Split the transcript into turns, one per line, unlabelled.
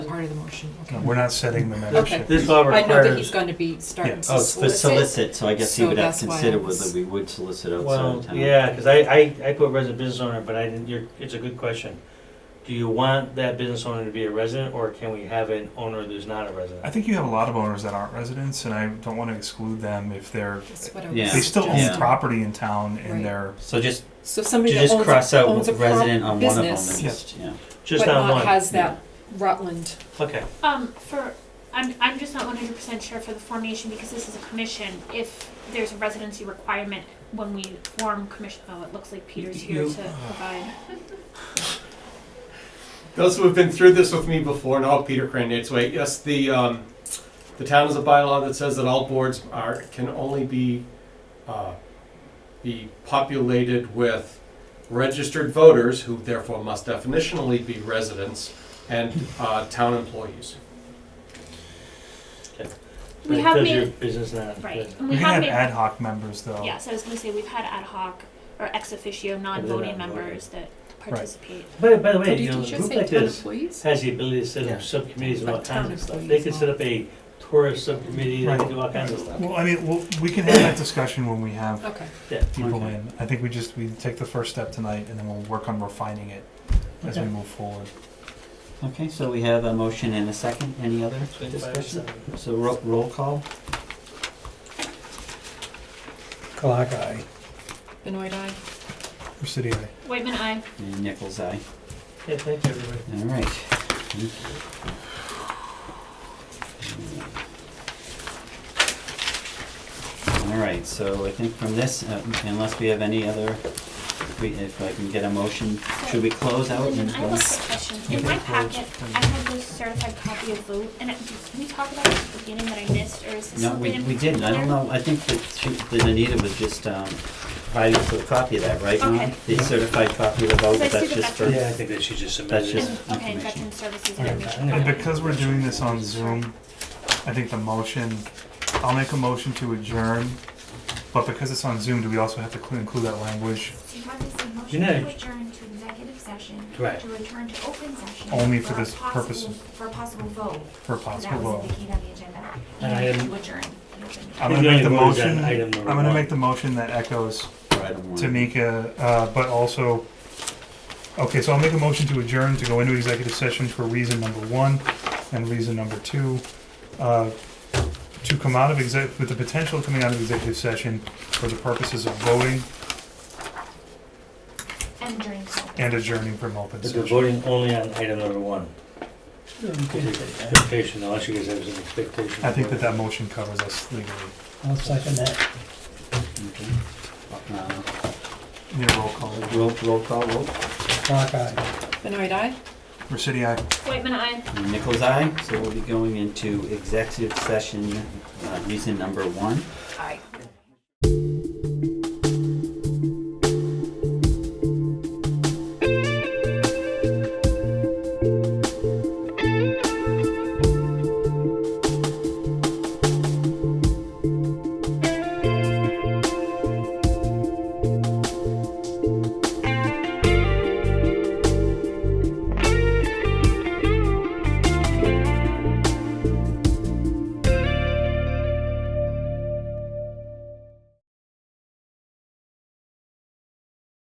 part of the motion, okay.
We're not setting the
Okay.
membership.
This law
I know that he's
requires,
going to be starting
Yeah.
to
Oh, it's for
solicit.
solicit, so I guess he
So
would have
that's why
to
I
consider
was-
whether we would solicit outside
well,
of town.
yeah, because I, I, I put resident business owner, but I didn't, you're, it's a good question. Do you want that business owner to be a resident, or can we have an owner who's not a
I
resident?
think you have a lot of owners that aren't residents, and I don't want to exclude them if they're,
That's what I was
Yeah.
they still own
Yeah.
suggesting.
property in town
Right.
and they're,
So just,
So
to
somebody that
just
owns
cross
a,
out
owns a
resident
prop
on one of them,
business,
and just, yeah.
Just
but
on
not
one,
has that Rutland,
okay.
Um, for, I'm, I'm just not one hundred percent sure for the formation, because this is a commission, if there's a residency requirement when we form commission, oh, it looks like Peter's here
You-
to provide.
Those who have been through this with me before know Peter Crandall's way. Yes, the, um, the town has a bylaw that says that all boards are, can only be, uh, be populated with registered voters, who therefore must definitionally be residents, and, uh, town employees.
We
Right,
have
does your
made,
Business not.
right,
business.
and
we
we
can
have
have
made,
ad hoc members though.
yes, I was gonna say, we've had ad hoc or ex officio,
not voting.
non-voting members that participate.
By, by the way,
did
you
you
know, a
just
group
say
like
town
this
employees?
has the ability to set
Yeah.
up subcommittees and all
Like town
kinds of stuff. They
employees
can
and
set
all.
up a tourist subcommittee, they
Right.
can do all kinds of stuff.
Well, I mean, we'll, we can have that discussion when we have
Okay,
people
Okay.
in. I think we just, we take the first step tonight and then we'll work on refining it as we
Okay.
move forward.
Okay, so we have a motion and a second, any other
Twenty-five
discussion?
percent.
So roll, roll call?
Clock eye.
Benoit Eye.
Recity eye.
Whitman, I.
And Nichols, aye.
Okay, thank you, everybody.
All right. All right, so I think from this, uh, unless we have any other, if we, if I can get a motion, should we close out
Lyndon,
and
I have a quick
go?
question. In my packet, I have this certified copy of vote, and it- did we talk about it at the beginning that I missed, or is this
No, we,
something in
we didn't, I don't
particular?
know, I think that she, that Anita was just, um, providing us with a copy of that, right, Mom?
Okay.
The certified copy of the vote,
So I
but
see
that's
the
just for,
veteran-
Yeah, I think that she just
That's
submitted.
just-
it.
And- Okay,
information.
veteran services
Okay.
information.
And
Okay.
because we're doing this on Zoom, I think the motion, I'll make a motion to adjourn, but because it's on Zoom, do we also have to cl- include that language
So you have this
You
motion
know-
to adjourn to executive session,
Right.
to return to open session.
Only for
a
this purpose.
possible- For a possible vote.
for possible
That was
vote?
indicated on the agenda.
And I am-
To adjourn. the open-
I'm
We're
gonna
doing
make the
the vote is on
motion,
item
I'm
number
gonna
one.
make the motion that echoes
for item one.
Tamika, uh, but also, okay, so I'll make a motion to adjourn to go into executive session for reason number one and reason number two. uh, To come out of exec, with the potential of coming out of executive session for the purposes of voting
And during. so-
and adjourning from open
But we're
session.
voting only on item number one. Expectation, unless you guys have some expectation.
I think that that motion covers us legally.
I'll second that.
Okay. Uh,
Need a roll call.
Roll, roll call, roll.
Clock eye.
Benoit Eye?
Resity, aye.
Whitman, I.
Nichols eye, so we'll be going into executive session, uh, reason number one.
Aye.